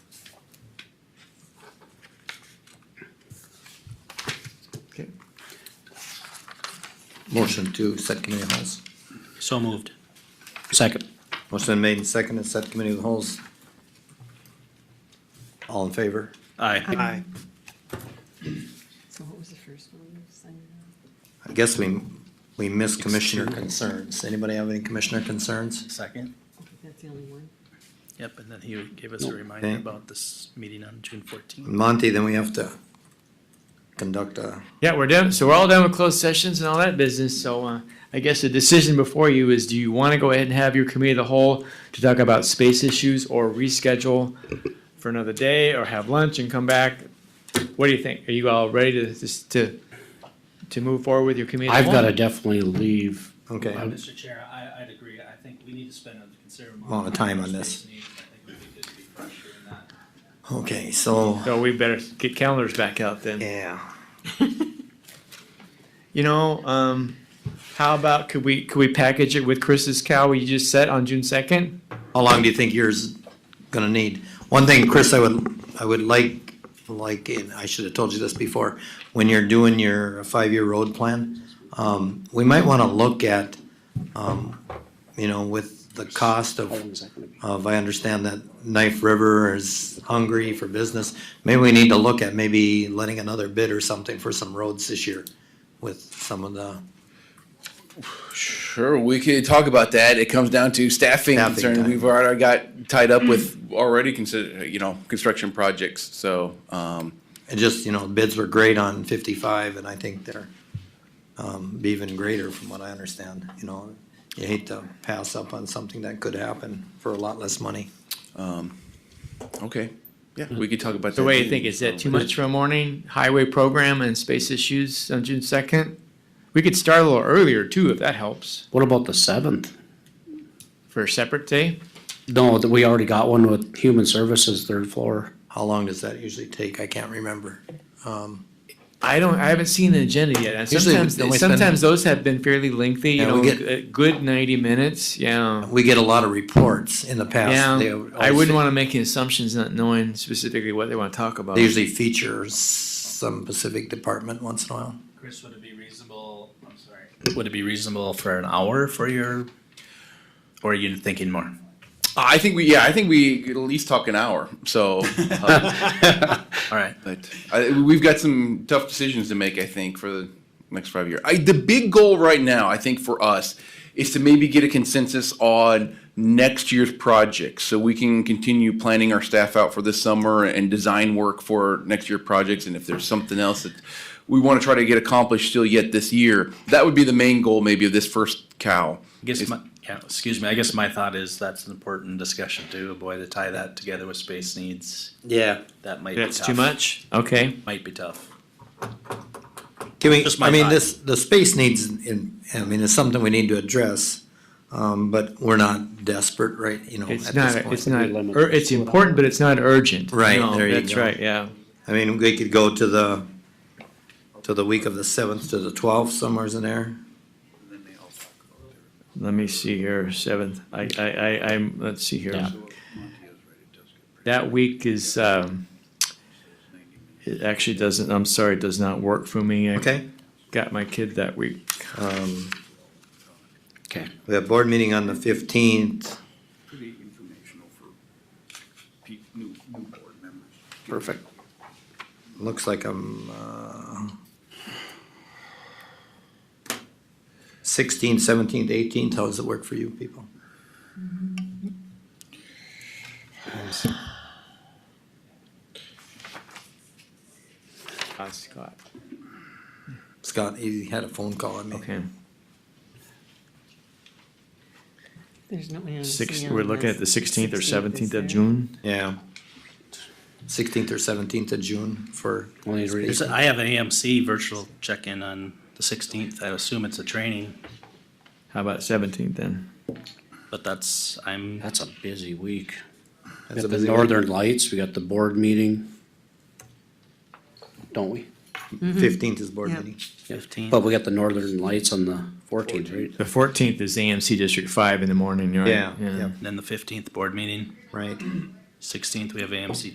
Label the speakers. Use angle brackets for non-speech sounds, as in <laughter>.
Speaker 1: Motion to set committee of the wholes.
Speaker 2: So moved. Second.
Speaker 1: Motion been made and seconded, set committee of the wholes. All in favor?
Speaker 2: Aye.
Speaker 3: Aye.
Speaker 4: So what was the first one? Sign it
Speaker 1: I guess we, we missed commissioner concerns. Anybody have any commissioner concerns?
Speaker 5: Second.
Speaker 4: up? Okay, that's the only one.
Speaker 2: Yep, and then he gave us a reminder
Speaker 1: Okay.
Speaker 2: about this meeting on June fourteenth.
Speaker 1: Monty, then we have to conduct a,
Speaker 3: Yeah, we're done, so we're all done with closed sessions and all that business, so, uh, I guess the decision before you is, do you wanna go ahead and have your committee of the whole to talk about space issues or reschedule for another day, or have lunch and come back? What do you think? Are you all ready to, just to, to move forward with your committee of the
Speaker 6: I've
Speaker 3: whole?
Speaker 6: got to definitely leave.
Speaker 1: okay.
Speaker 6: Mr.
Speaker 2: Chair, I, I'd agree. I think we need to spend a considerable
Speaker 1: Lot of time on this. Okay, so,
Speaker 3: So we better get calendars back out then.
Speaker 1: yeah.
Speaker 3: You know, um, how about, could we, could we package it with Chris's cow we just set on June second?
Speaker 1: How long do you think yours gonna need? One thing, Chris, I would, I would like, like, and I should have told you this before, when you're doing your five-year road plan, um, we might wanna look at, um, you know, with the cost
Speaker 6: How
Speaker 1: of
Speaker 6: long is that going to be?
Speaker 1: of, I understand that Knife River is hungry for business. Maybe we need to look at maybe letting another bid or something for some roads this year with some of the,
Speaker 7: Sure, we could talk about that. It comes down to staffing
Speaker 1: Staffing
Speaker 7: concern.
Speaker 1: time.
Speaker 7: We've already got tied up with already consider, you know, construction projects, so, um,
Speaker 1: and just, you know, bids were great on fifty-five and I think they're um, be even greater from what I understand, you know. You hate to pass up on something that could happen for a lot less money.
Speaker 7: okay. Yeah, we could talk about that.
Speaker 3: So what do you
Speaker 7: too.
Speaker 3: think? Is that too much for a morning? Highway program and space issues on June second? We could start a little earlier too, if that helps,
Speaker 6: What about the seventh?
Speaker 3: for a separate day.
Speaker 6: No, that we already got one with Human Services, third floor.
Speaker 1: How long does that usually take? I can't remember. Um,
Speaker 3: I don't, I haven't seen an agenda yet. And
Speaker 1: Usually
Speaker 3: sometimes,
Speaker 1: we- we spend-
Speaker 3: sometimes those have been fairly lengthy, you
Speaker 1: Yeah, we
Speaker 3: know,
Speaker 1: get-
Speaker 3: a good ninety minutes, yeah.
Speaker 1: We get a lot of reports in the past. They
Speaker 3: Yeah,
Speaker 1: always-
Speaker 3: I wouldn't wanna make any assumptions not knowing specifically what they wanna talk about.
Speaker 1: They usually feature some Pacific department once in a while.
Speaker 2: Chris, would it be reasonable, I'm sorry. Would it be reasonable for an hour for your, or are you thinking more?
Speaker 7: I think we, yeah, I think we could at least talk an hour,
Speaker 3: <laughs>
Speaker 7: so, uh,
Speaker 2: All right.
Speaker 7: but I, we've got some tough decisions to make, I think, for the next five years. I, the big goal right now, I think for us, is to maybe get a consensus on next year's projects, so we can continue planning our staff out for this summer and design work for next year projects, and if there's something else that we want to try to get accomplished still yet this year, that would be the main goal maybe of this first cow.
Speaker 2: I guess my, yeah, excuse me, I guess my thought is that's an important discussion to avoid to tie that together with space needs.
Speaker 1: Yeah.
Speaker 2: That might be tough.
Speaker 3: That's too much? Okay.
Speaker 2: Might be tough.
Speaker 1: Can we,
Speaker 2: Just my
Speaker 1: I mean,
Speaker 2: thought.
Speaker 1: this, the space needs, in, I mean, it's something we need to address, um, but we're not desperate, right, you know, at
Speaker 3: It's not,
Speaker 1: this
Speaker 3: it's
Speaker 1: point.
Speaker 3: not,
Speaker 6: Limit.
Speaker 3: ur- it's important, but it's not urgent.
Speaker 1: Right,
Speaker 3: No,
Speaker 1: there you
Speaker 3: That's
Speaker 1: go.
Speaker 3: right, yeah.
Speaker 1: I mean, we could go to the, to the week of the seventh to the twelfth, somewheres in there.
Speaker 3: Let me see here, seventh, I, I, I, I'm, let's see here.
Speaker 6: Yeah.
Speaker 3: That week is, um, it actually doesn't, I'm sorry, it does not work for me. I
Speaker 1: Okay,
Speaker 3: Got my kid that week.
Speaker 1: um,
Speaker 6: Okay.
Speaker 1: we have board meeting on the fifteenth,
Speaker 5: Pretty informational for new, new board members.
Speaker 6: Perfect.
Speaker 1: looks like I'm, uh, sixteenth, seventeenth, eighteenth, how does it work for you people?
Speaker 3: Ah, Scott.
Speaker 1: Scott, he had a phone call on me.
Speaker 3: Okay,
Speaker 4: There's no one else.
Speaker 3: six, we're looking at the sixteenth or seventeenth of June.
Speaker 1: Yeah. Sixteenth or seventeenth of June for,
Speaker 6: Only to read
Speaker 2: There's, I have an AMC virtual check-in on the sixteenth. I assume it's a training,
Speaker 3: How about seventeenth then?
Speaker 2: but that's, I'm,
Speaker 6: That's a busy week. We
Speaker 1: that's a
Speaker 6: got the
Speaker 1: busy week.
Speaker 6: Northern Lights, we got the board meeting. Don't we?
Speaker 1: Fifteenth is board
Speaker 4: Yeah.
Speaker 1: meeting.
Speaker 2: Fifteen.
Speaker 6: But we got the Northern Lights on the fourteenth, right?
Speaker 3: The fourteenth is AMC District Five in the morning, right?
Speaker 1: Yeah, yeah,
Speaker 2: then the fifteenth board meeting,
Speaker 1: right.
Speaker 2: sixteenth we have AMC